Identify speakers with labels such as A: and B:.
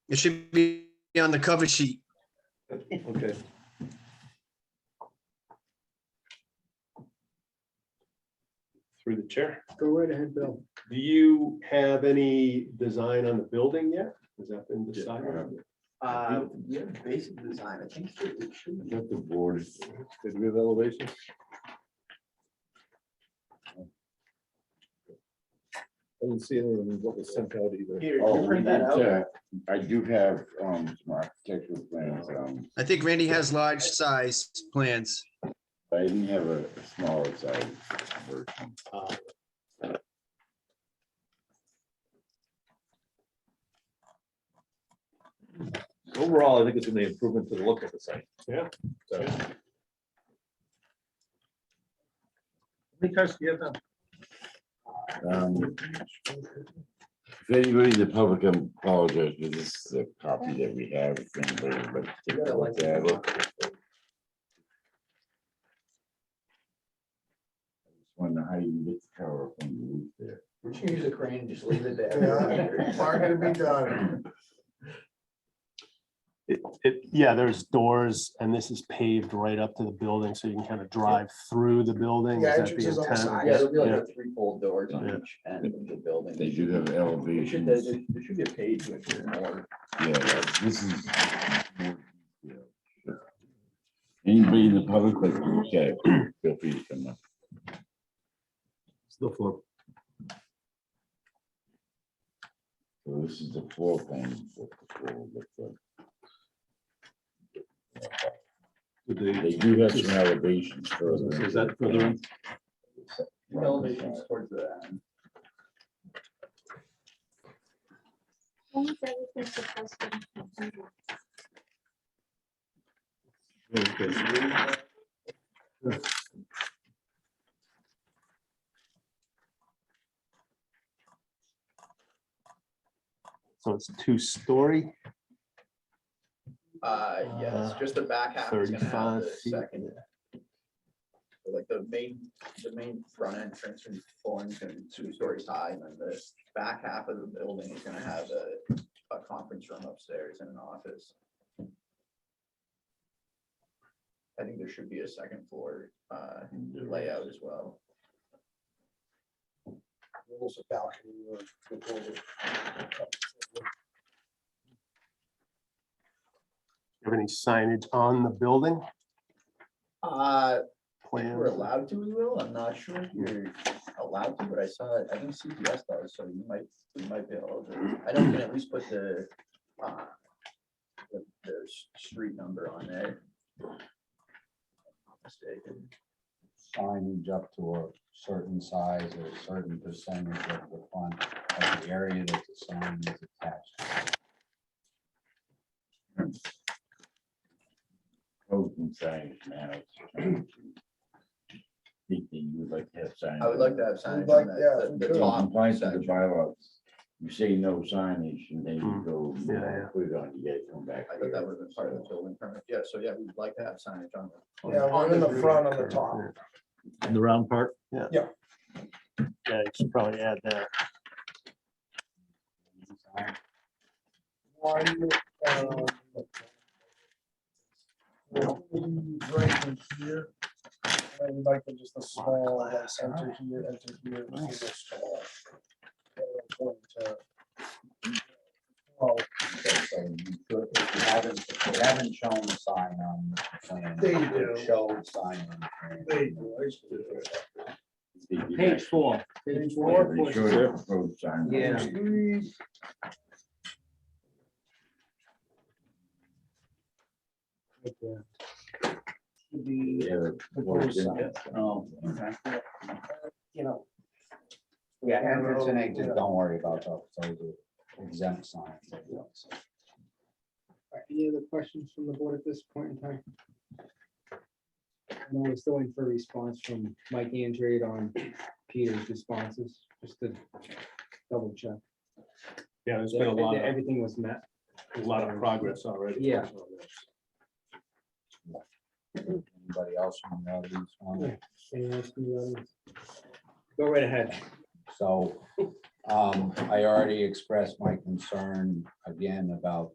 A: It should be on the cover sheet.
B: Okay. Through the chair.
C: Go right ahead, Bill.
B: Do you have any design on the building yet? Has that been decided?
C: Uh, we have a basic design, I think. it should be-
D: Got the board, did we have elevation? I didn't see anything in what was sent out either.
C: Here,
E: Oh,
C: can you
E: we
C: print
E: did,
C: that out?
E: uh, I do have, um, some architectural plans, um,
A: I think Randy has large size plans.
E: but I didn't have a a smaller size version.
B: Uh,
D: Overall, I think it's an improvement to the look of the site.
B: Yeah.
D: So,
C: Because you have them.
E: Um, If anybody in the public I apologize, but this is the copy that we have. if anybody would like to take a look at it. I just Wonder how you get the tower up on the roof there.
C: We should use a crane, just leave it
F: Yeah, part to be done.
B: It, it, yeah, there's doors and this is paved right up to the building, so you can kind of drive through the building.
F: Yeah,
B: Is that
F: entrances on the
B: intent?
F: side.
C: Yeah, there'll be like
B: Yeah.
C: a three-fold doors on
B: Yeah.
C: each end of the building.
E: They do have
C: There should-
E: elevations.
C: There there should be a page with it more.
E: Yeah, that- this is. Anybody in the public, like, okay, feel free to come up.
D: it's The floor,
E: So this is the floor plan. what the floor looks like.
D: did they-
E: They do have some elevations further.
D: is that further in?
C: Elevations towards the end.
G: When is everything supposed to be completed?
D: Okay.
B: So it's two-story.
C: Uh, yes,
B: Uh,
C: just the back half is gonna have
B: 35
C: the
B: feet.
C: second. Like the main, the main front entrance and flooring is gonna be two stories high, and then the back half of the building is gonna have a, a conference room upstairs and an office. I think there should be a second floor, uh, layout as well.
F: There's a balcony or a door.
B: Have any signage on the building
C: Uh, If
B: plan?
C: we're allowed to, we will. I'm not sure if you're allowed to, but I saw, it. I think CPS does, so you might, you might be able to. I know we can at least put the, uh, the, the s- street number on there. If I'm not Mistaken.
H: signage up to a certain size or a certain percentage of the fund, of the area that the sign is attached. to.
E: Open signs now. Think that you would like to have signs.
C: I would like to have signage
F: like-
C: on
F: yeah,
C: that,
F: we
C: the- the
F: could.
C: top
E: Compliance with the
C: section.
E: bylaws. You say no signage and then you
B: Hmm.
E: go,
B: Yeah, yeah.
E: we're gonna get it, come back.
C: I thought that would have been part of the building permit. Yeah, so yeah, we'd like to have signage on the
F: Yeah, one in the front on the top.
D: In the round part?
B: Yeah, you should probably add that.
F: One, um, Right in here. And like just a small, like, enter here, enter here. and see this door. And it's going to-
H: Well, so you could- if you haven't, if you haven't shown the sign on the plan.
F: They
H: you could
F: do.
H: Show the sign on the plan.
F: There you go, I see it.
E: Page four.
F: Page four.
E: Yeah.
F: Please. Right there. Should be
H: Oh, okay.
F: you know.
H: Yeah, entrance and exit, don't worry about those, those are exempt signs.
I: Any other questions from the board at this point in time? I know we're still waiting for a response from Mike Andrade on Peter's responses, just to double check.
D: Yeah, there's
I: that that Everything was met.
D: a lot of progress already.
I: Yeah.
H: Anybody else from the audience want to
I: Anyone else from the audience? Go right ahead.
H: So um, I already expressed my concern again about